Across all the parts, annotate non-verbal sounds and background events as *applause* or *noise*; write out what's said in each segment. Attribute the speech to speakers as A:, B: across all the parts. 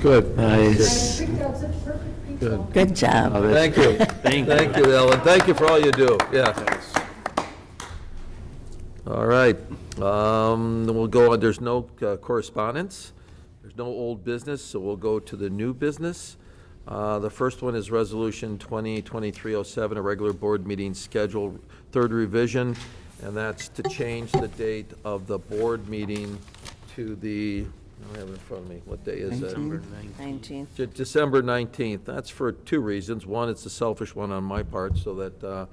A: Good.
B: Nice.
C: Good job, such perfect people.
D: Good job.
A: Thank you.
B: Thank you.
A: Thank you, Ellen. Thank you for all you do, yeah. All right, um, then we'll go, on. there's no uh, correspondence, there's no old business, so we'll go to the new business. Uh, The first one is Resolution 2023-07, a regular board meeting schedule, third revision, and that's to change the date of the board meeting to the, I don't have it in front of me, what day is it?
D: 19th.
A: De- December 19th. That's for two reasons. One, it's a selfish one on my part, so that uh,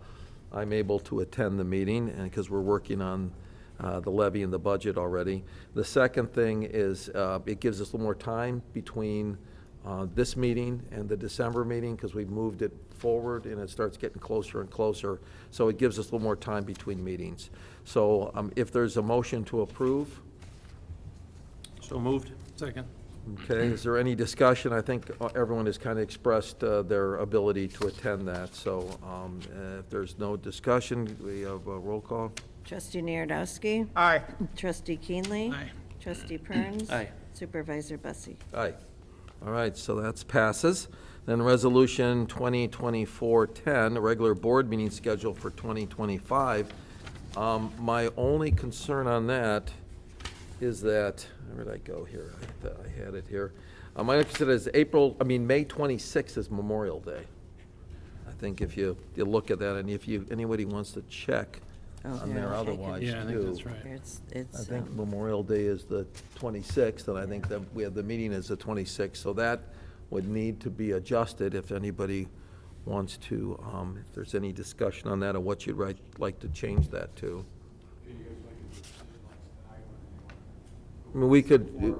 A: I'm able to attend the meeting, and because we're working on uh, the levy and the budget already. The second thing is, uh, it gives us a little more time between uh, this meeting and the December meeting, because we've moved it forward, and it starts getting closer and closer, so it gives us a little more time between meetings. So um, if there's a motion to approve,
B: So moved. Second.
A: Okay, is there any discussion? I think uh, everyone has kind of expressed uh, their ability to attend that, so um, uh, if there's no discussion, we have a roll call.
D: Trustee Narodowski.
B: Aye.
D: Trustee Keenley.
B: Aye.
D: Trustee Perns.
B: Aye.
D: Supervisor Bussie.
A: Aye. All right, so that's passes. Then Resolution 2024-10, a regular board meeting schedule for 2025. Um, My only concern on that is that, where did I go here? I thought I had it here. Um, My concern is April, I mean, May 26th is Memorial Day. I think if you, you look at that, and if you, anybody wants to check
D: Oh,
A: on
D: yeah,
A: there
D: I can-
A: otherwise,
B: Yeah, I think that's
A: too.
B: right.
D: It's,
A: I
D: it's,
A: think
D: um,
A: Memorial Day is the 26th, and I think that we have, the meeting is the 26th, so that would need to be adjusted if anybody wants to, um, if there's any discussion on that, or what you'd right- like to change that to. I mean, we could,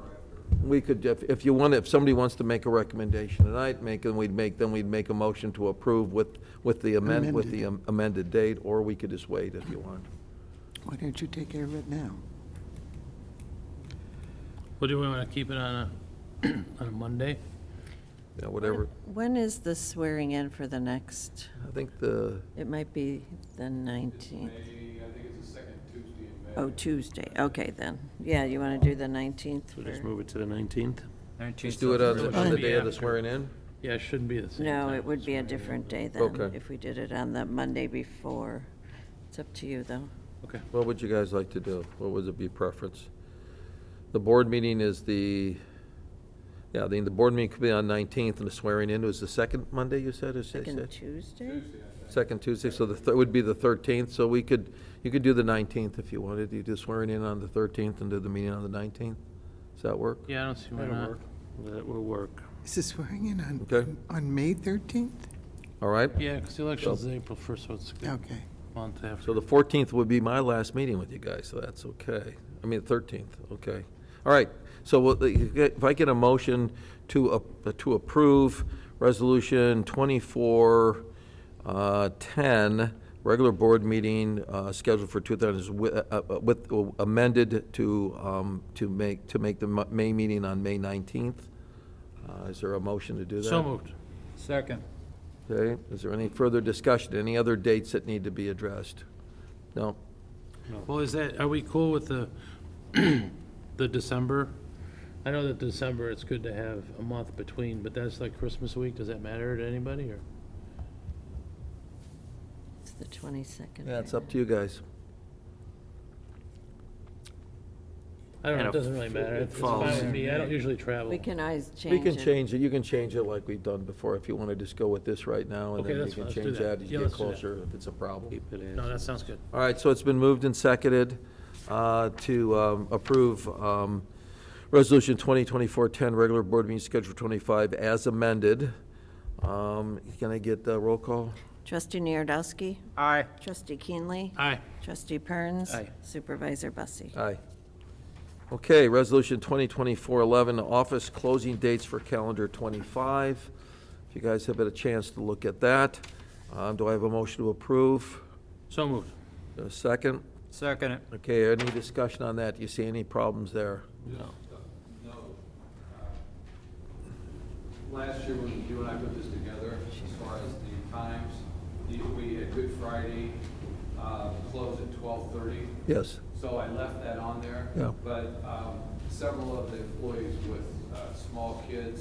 A: we could, if if you want, if somebody wants to make a recommendation tonight, make, and we'd make, then we'd make a motion to approve with, with the amend, with the amended date, or we could just wait if you want.
E: Why don't you take care of it now?
F: Well, do we want to keep it on a, *clears throat* on a Monday?
A: Yeah, whatever.
D: when is the swearing in for the next?
A: I think the,
D: It might be the 19th. I think it's the second Tuesday in May. Oh, Tuesday, okay then. Yeah, you want to do the 19th?
B: So just
D: for-
B: move it to the 19th?
A: just do it on the, on the day of the swearing in?
F: Yeah, it shouldn't be the same
D: No,
F: time.
D: it would be a different day then,
A: Okay.
D: if we did it on the Monday before. It's up to you, though.
F: Okay.
A: What would you guys like to do? What would it be preference? The board meeting is the, yeah, the, the board meeting could be on 19th, and the swearing in was the second Monday, you said, is
D: Second Tuesday?
A: Second Tuesday, so the, thir- would be the 13th, so we could, you could do the 19th if you wanted, you do swearing in on the 13th and do the meeting on the 19th? Does that work?
F: Yeah, I don't see why
B: That'll
F: not.
B: work. That will work.
E: Is this swearing in on?
A: Okay.
E: On May 13th?
A: All right?
F: Yeah, because the election's April 1st, so it's a good
E: Okay.
F: month
A: So
F: after.
A: the 14th would be my last meeting with you guys, so that's okay. I mean, 13th, okay. All right, so we'll- if I get a motion to, ap- to approve Resolution 2410, regular board meeting uh, scheduled for 2000, with- uh, uh, with amended to, um, to make, to make the Mo- May meeting on May 19th. Uh, Is there a motion to do that?
F: So moved.
G: Second.
A: Okay, is there any further discussion? Any other dates that need to be addressed? No?
F: Well, is that, are we cool with the, *clears throat* the December? I know that December, it's good to have a month between, but that's like Christmas week. Does that matter to anybody, or?
D: It's the 22nd.
A: Yeah, it's up to you guys.
F: I don't know,
B: And
F: it
B: it
F: doesn't really matter.
B: it
F: It's fine
B: falls
F: with
B: in
F: me. I don't usually travel.
D: We can always change
A: We
D: it.
A: can change it, you can change it like we've done before, if you want to just go with this right now, and
F: Okay,
A: then you
F: that's fine.
A: can
F: Let's do
A: change
F: that.
A: that as you get
F: Yeah, let's do that.
A: closer, if it's a problem.
B: Keep it as.
F: No, that sounds good.
A: All right, so it's been moved and seconded uh, to um, approve um, Resolution 2024-10, regular board meeting schedule 25, as amended. Um, Can I get a roll call?
D: Trustee Narodowski.
G: Aye.
D: Trustee Keenley.
F: Aye.
D: Trustee Perns.
B: Aye.
D: Supervisor Bussie.
A: Aye. Okay, Resolution 2024-11, office closing dates for calendar 25. If you guys have had a chance to look at that, um, do I have a motion to approve?
F: So moved.
A: A second?
G: Second it.
A: Okay, any discussion on that? Do you see any problems there?
H: No. uh, Last year, when you and I put this together, as far as the times, the- we had Good Friday, uh, close at twelve-thirty,
A: Yes.
H: so I left that on there.
A: Yeah.
H: But um, several of the employees with uh, small kids